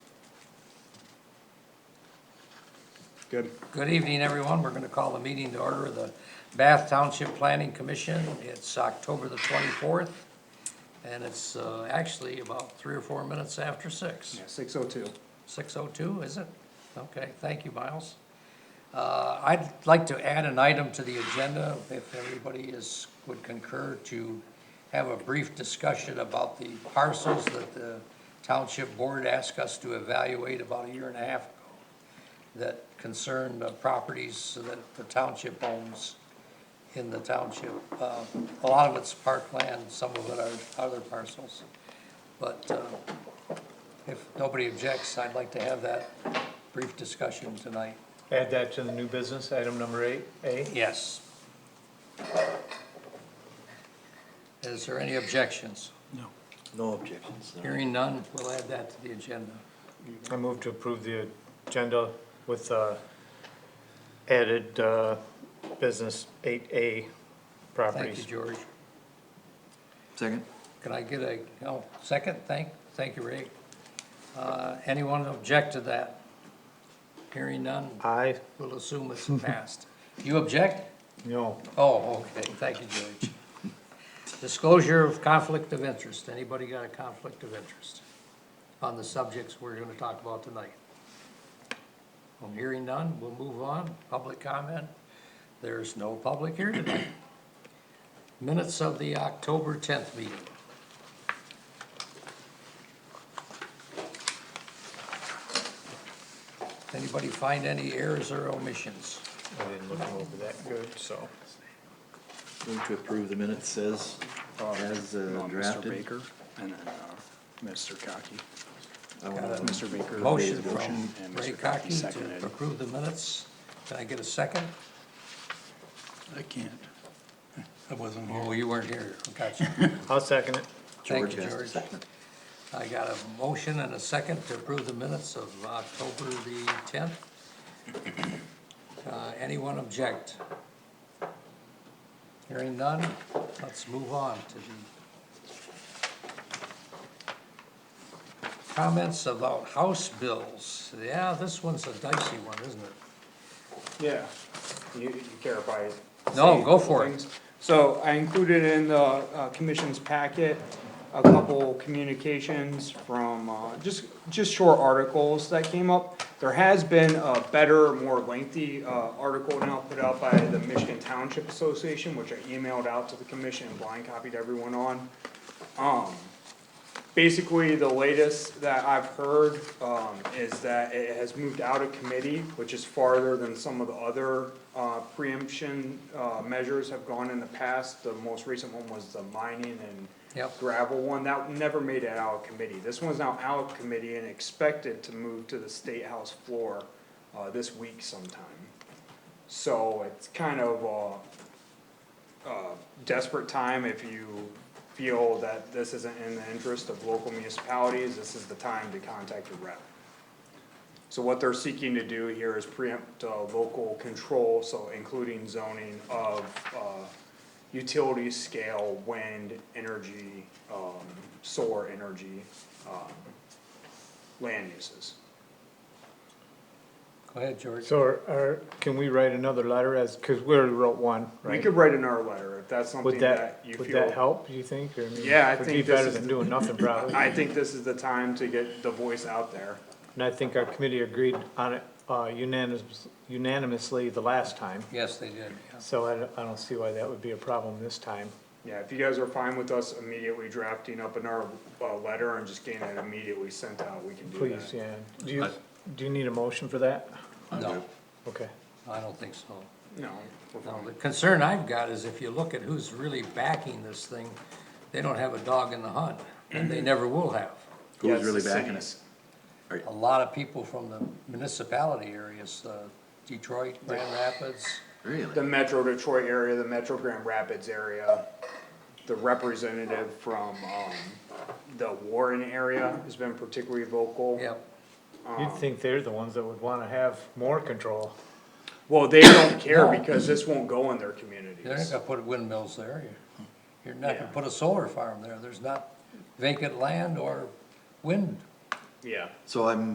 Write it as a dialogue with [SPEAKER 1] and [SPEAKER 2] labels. [SPEAKER 1] Good.
[SPEAKER 2] Good evening, everyone. We're going to call the meeting to order of the Bath Township Planning Commission. It's October the 24th, and it's uh, actually about three or four minutes after six.
[SPEAKER 1] Yeah, six oh two.
[SPEAKER 2] 6:02, is it? Okay, thank you, Miles. Uh, I'd like to add an item to the agenda, if everybody is, would concur, to have a brief discussion about the parcels that the township board asked us to evaluate about a year and a half ago that concern the properties that the township owns in the township. Uh, A lot of it's parkland, some of it are other parcels. But uh, if nobody objects, I'd like to have that brief discussion tonight.
[SPEAKER 3] Add that to the new business, item number eight, A.
[SPEAKER 2] Yes. Is there any objections?
[SPEAKER 4] No objections.
[SPEAKER 2] Hearing none, we'll add that to the agenda.
[SPEAKER 3] I move to approve the agenda with uh, added uh, business eight
[SPEAKER 2] Thank
[SPEAKER 3] A
[SPEAKER 2] you,
[SPEAKER 3] properties.
[SPEAKER 2] George.
[SPEAKER 4] Second?
[SPEAKER 2] Can I get a, oh, second? Thank, thank you, Ray. Uh, Anyone object to that? Hearing none,
[SPEAKER 3] Aye,
[SPEAKER 2] we'll assume it's passed. You object?
[SPEAKER 3] no,
[SPEAKER 2] Oh, okay, thank you, George. Disclosure of conflict of interest, anybody got a conflict of interest on the subjects we're gonna talk about tonight? I'm hearing none, we'll move on, public comment, there's no public here tonight. Minutes of the October tenth meeting, anybody find any errors or omissions?
[SPEAKER 3] I didn't look over that good, so.
[SPEAKER 4] Move to approve the minutes says, as uh,
[SPEAKER 5] Uh, Mr.
[SPEAKER 4] drafted.
[SPEAKER 5] Baker and then uh, Mr. Cocky.
[SPEAKER 4] I want
[SPEAKER 2] Got it.
[SPEAKER 4] to-
[SPEAKER 5] Mr. Baker.
[SPEAKER 2] Motion
[SPEAKER 5] made the
[SPEAKER 2] from
[SPEAKER 5] and
[SPEAKER 2] Ray
[SPEAKER 5] Mr. Cocky
[SPEAKER 2] Cocke
[SPEAKER 5] seconded.
[SPEAKER 2] to approve the minutes. Can I get a second?
[SPEAKER 5] I can't. I wasn't
[SPEAKER 2] Oh, you weren't here. Gotcha.
[SPEAKER 3] I'll second it.
[SPEAKER 2] Thank you,
[SPEAKER 4] George has to
[SPEAKER 2] George.
[SPEAKER 4] second.
[SPEAKER 2] I got a motion and a second to approve the minutes of October the tenth. Uh, anyone object? Hearing none, let's move on to the comments about house bills. Yeah, this one's a dicey one, isn't it?
[SPEAKER 6] Yeah, you, you care if I.
[SPEAKER 2] No,
[SPEAKER 6] say
[SPEAKER 2] go for it.
[SPEAKER 6] things? So I included in the, uh, commission's packet, a couple communications from, uh, just, just short articles that came up. There has been a better, more lengthy, uh, article now put out by the Michigan Township Association, which I emailed out to the commission and blind copied everyone on. Um, basically, the latest that I've heard, um, is that it has moved out of committee, which is farther than some of the other, uh, preemption, uh, measures have gone in the past. The most recent one was the mining and
[SPEAKER 2] Yep.
[SPEAKER 6] gravel one, that never made it out of committee. This one's now out of committee and expected to move to the State House floor, uh, this week sometime. So it's kind of, uh, uh, desperate time if you feel that this isn't in the interest of local municipalities, this is the time to contact your rep. So what they're seeking to do here is preempt uh, local control, so including zoning of uh, utility scale, wind, energy, um, solar energy, um, land uses.
[SPEAKER 2] Go ahead, George.
[SPEAKER 3] So are- are, can we write another letter as, because we already wrote one,
[SPEAKER 6] We
[SPEAKER 3] right?
[SPEAKER 6] could write in our letter if that's something
[SPEAKER 3] Would
[SPEAKER 6] that
[SPEAKER 3] that,
[SPEAKER 6] you feel.
[SPEAKER 3] would that help, do you think? Or I mean,
[SPEAKER 6] Yeah, I
[SPEAKER 3] Would be
[SPEAKER 6] think this
[SPEAKER 3] better
[SPEAKER 6] is-
[SPEAKER 3] than doing nothing probably.
[SPEAKER 6] I think this is the time to get the voice out there.
[SPEAKER 3] And I think our committee agreed on it uh, unanimous- unanimously the last time.
[SPEAKER 2] Yes, they did, yeah.
[SPEAKER 3] So I don't, I don't see why that would be a problem this time.
[SPEAKER 6] Yeah, if you guys are fine with us immediately drafting up another, uh, letter and just getting it immediately sent out, we can do that.
[SPEAKER 3] Please, yeah. Do you, do you need a motion for that?
[SPEAKER 2] No,
[SPEAKER 3] Okay.
[SPEAKER 2] I don't think so.
[SPEAKER 6] No, we're
[SPEAKER 2] No,
[SPEAKER 6] fine.
[SPEAKER 2] the concern I've got is if you look at who's really backing this thing, they don't have a dog in the hunt, and they never will have.
[SPEAKER 6] Yeah,
[SPEAKER 4] Who's
[SPEAKER 6] it's
[SPEAKER 4] really
[SPEAKER 6] the
[SPEAKER 4] backing
[SPEAKER 6] cities.
[SPEAKER 4] us?
[SPEAKER 2] A lot of people from the municipality areas, uh, Detroit, Grand Rapids,
[SPEAKER 6] The
[SPEAKER 4] Really?
[SPEAKER 6] Metro Detroit area, the Metro Grand Rapids area, the representative from, um, the Warren area has been particularly vocal.
[SPEAKER 2] yep,
[SPEAKER 3] You'd think they're the ones that would wanna have more control.
[SPEAKER 6] Well, they don't care
[SPEAKER 2] No.
[SPEAKER 6] because this won't go in their
[SPEAKER 2] they're not
[SPEAKER 6] communities.
[SPEAKER 2] gonna put windmills there. You- You're not gonna
[SPEAKER 6] Yeah.
[SPEAKER 2] put a solar farm there, there's not vacant land or wind
[SPEAKER 6] Yeah.
[SPEAKER 4] So I'm